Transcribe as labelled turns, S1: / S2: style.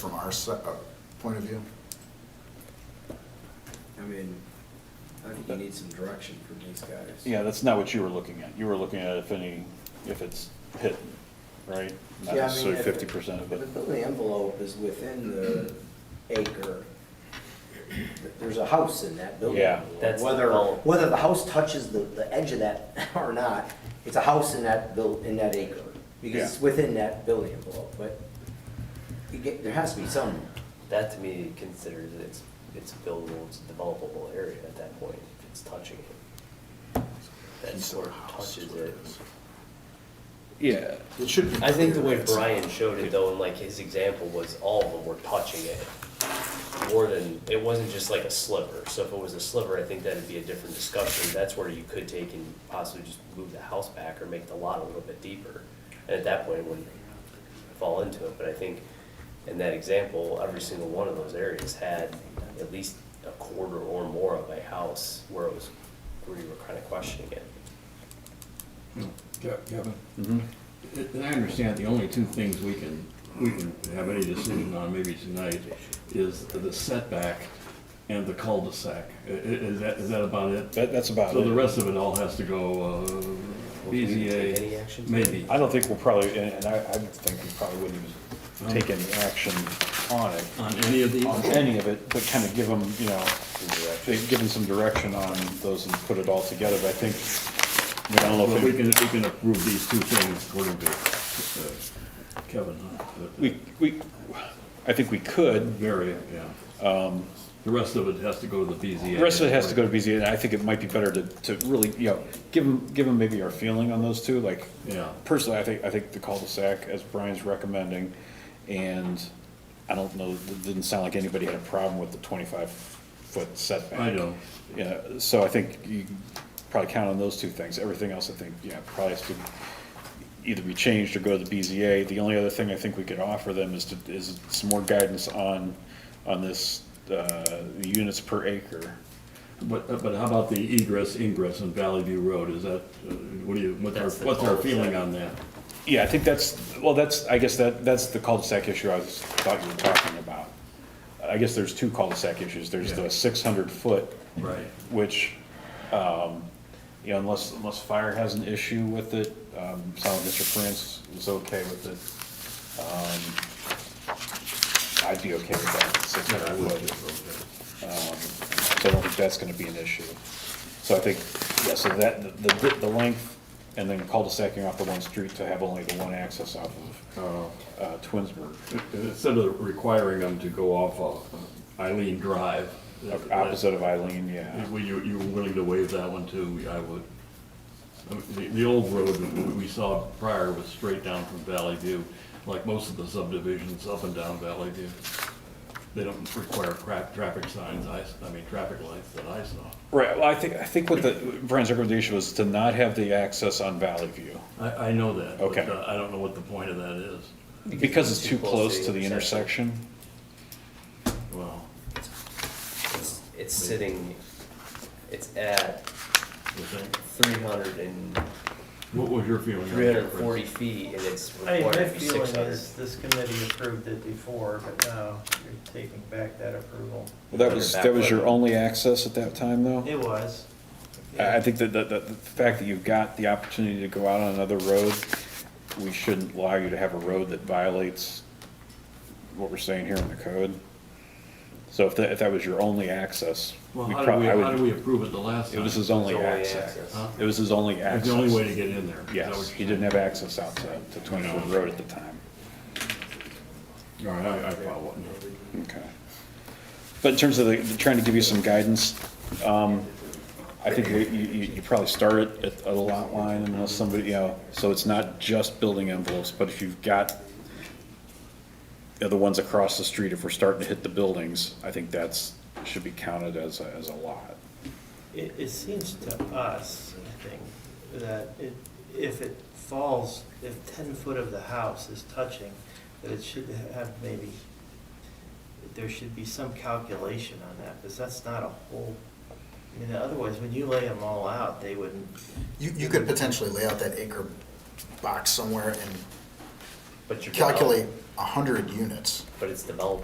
S1: from our se- uh, point of view?
S2: I mean, I think you need some direction from these guys.
S3: Yeah, that's not what you were looking at. You were looking at if any, if it's hit, right? Not
S2: Yeah, I mean,
S3: necessarily
S2: if it-
S3: fifty percent of
S2: If the
S3: it.
S2: building envelope is within the acre, th- there's a house in that building.
S3: Yeah.
S2: envelope.
S4: That's the
S2: Whether,
S4: bulk.
S2: whether the house touches the, the edge of that or not, it's a house in that buil, in that acre. Because it's
S3: Yeah.
S2: within that building envelope, but you get, there has to be some,
S4: That to me considers it's, it's buildable, it's a developable area at that point, if it's touching it. That
S1: Piece of
S4: sort of
S1: house is
S4: touches
S1: what
S4: it.
S1: is.
S3: Yeah.
S1: It should be.
S4: I think the
S1: clear.
S4: way
S1: It's-
S4: Brian showed it though, and like his example was all of them were touching it. More than, it wasn't just like a sliver, so if it was a sliver, I think that'd be a different discussion, that's where you could take and possibly just move the house back or make the lot a little bit deeper. And at that point, it wouldn't fall into it, but I think in that example, every single one of those areas had at least a quarter or more of a house where it was, where you were kind of questioning it.
S5: Yeah, Kevin, and and I understand the only two things we can, we can have any decision on maybe tonight is the setback and the cul-de-sac. I- i- Is that, is that about it?
S3: That, that's about
S5: So the
S3: it.
S5: rest of it all has to go, uh,
S4: Take any
S5: BZA,
S4: action?
S5: maybe.
S3: I don't think we'll probably, and and I, I would think we probably wouldn't even take any action on it,
S5: On any of these?
S3: on any of it, but kind of give them, you know, they give them some direction on those and put it all together, but I think, I mean, I don't know
S5: But
S3: if
S5: we
S3: we
S5: can, we can approve these two things according to uh, Kevin, huh? The- the
S3: We, we, I think we could.
S5: Area, yeah. The rest of it has to go to the BZA.
S3: Um, The rest of it has to go to BZA, and I think it might be better to, to really, you know, give them, maybe our feeling on those two, like.
S5: Yeah.
S3: Personally, I think, I think the cul-de-sac, as Brian's recommending, and I don't know, it didn't sound like anybody had a problem with the twenty-five foot setback.
S5: I don't.
S3: Yeah, so I think you probably count on those two things. Everything else, I think, yeah, probably has to either be changed or go to the BZA. The only other thing I think we could offer them is to, is some more guidance on, on this, uh, units per acre.
S5: But, uh, but how about the egress, ingress on Valley View Road, is that, uh, what do you, what's our,
S4: That's the
S5: what's our
S4: cul-de-sac.
S5: feeling on that?
S3: Yeah, I think that's, well, that's, I guess that, that's the cul-de-sac issue I was, thought you were talking about. I guess there's two cul-de-sac issues. There's the
S5: Yeah.
S3: six hundred foot,
S5: Right.
S3: which, um, you know, unless, unless fire has an issue with it, um, sounded Mr. France was okay with it. Um, I'd be okay with that, six
S5: I
S3: hundred
S5: would
S3: foot.
S5: just-
S3: So I don't think that's gonna be an issue. So I think, yeah, so that, the, the- the length, and then cul-de-sacing off the one street to have only the one access off of, uh, Twinsburg.
S5: Instead of requiring them to go off of Eileen Drive. that- that-
S3: Opposite of Eileen, yeah.
S5: Were you, you were willing to waive that one too, I would. I mean, The, the old road that we saw prior was straight down from Valley View, like most of the subdivisions up and down Valley View. They don't require crap, traffic signs, I, s- I mean, traffic lights that I saw.
S3: Right, well, I think, I think what the, Brian's recommendation was to not have the access on Valley View,
S5: I, I know that. but,
S3: Okay.
S5: uh, I don't know what the point of that is.
S3: because it's too close to the intersection.
S5: Well,
S4: It's- It's sitting, it's at
S5: you think?
S4: three hundred and
S5: What was your feeling? on that,
S4: Three hundred and
S5: Chris?
S4: forty feet and it's
S6: I mean,
S4: required
S6: my
S4: to be six
S6: feeling
S4: hundred.
S6: is this committee approved it before, but now you're taking back that approval.
S3: Well, that was, that was your only access at that time, though?
S6: It was.
S3: I I think that, that, that the fact that you've got the opportunity to go out on another road, we shouldn't allow you to have a road that violates what we're saying here in the code. So if that, if that was your only access,
S5: Well,
S3: we
S5: how did
S3: prob-
S5: we,
S3: I would-
S5: how did we approve it the last
S3: it
S5: time?
S3: was his only
S4: It's only
S3: access.
S4: access.
S5: Huh?
S3: It was his only
S5: It's
S3: access.
S5: the only way to get in there. Is that what
S3: Yes,
S5: you're
S3: he didn't have access out to, to Twenty-Foot Road at the time.
S5: saying? All right, I, I follow it.
S3: Okay. But in terms of the, the- trying to give you some guidance, um, I think you, you, you probably start it at a lot line unless somebody, you know, so it's not just building envelopes, but if you've got you know, the ones across the street, if we're starting to hit the buildings, I think that's, should be counted as, a- as a lot.
S6: It, it seems to us, I think, that it, if it falls, if ten foot of the house is touching, that it should have maybe, there should be some calculation on that, because that's not a whole, I mean, otherwise, when you lay them all out, they wouldn't,
S1: You, you could potentially lay out that acre box somewhere and But you're.
S4: calculate 100 units.
S1: But it's developed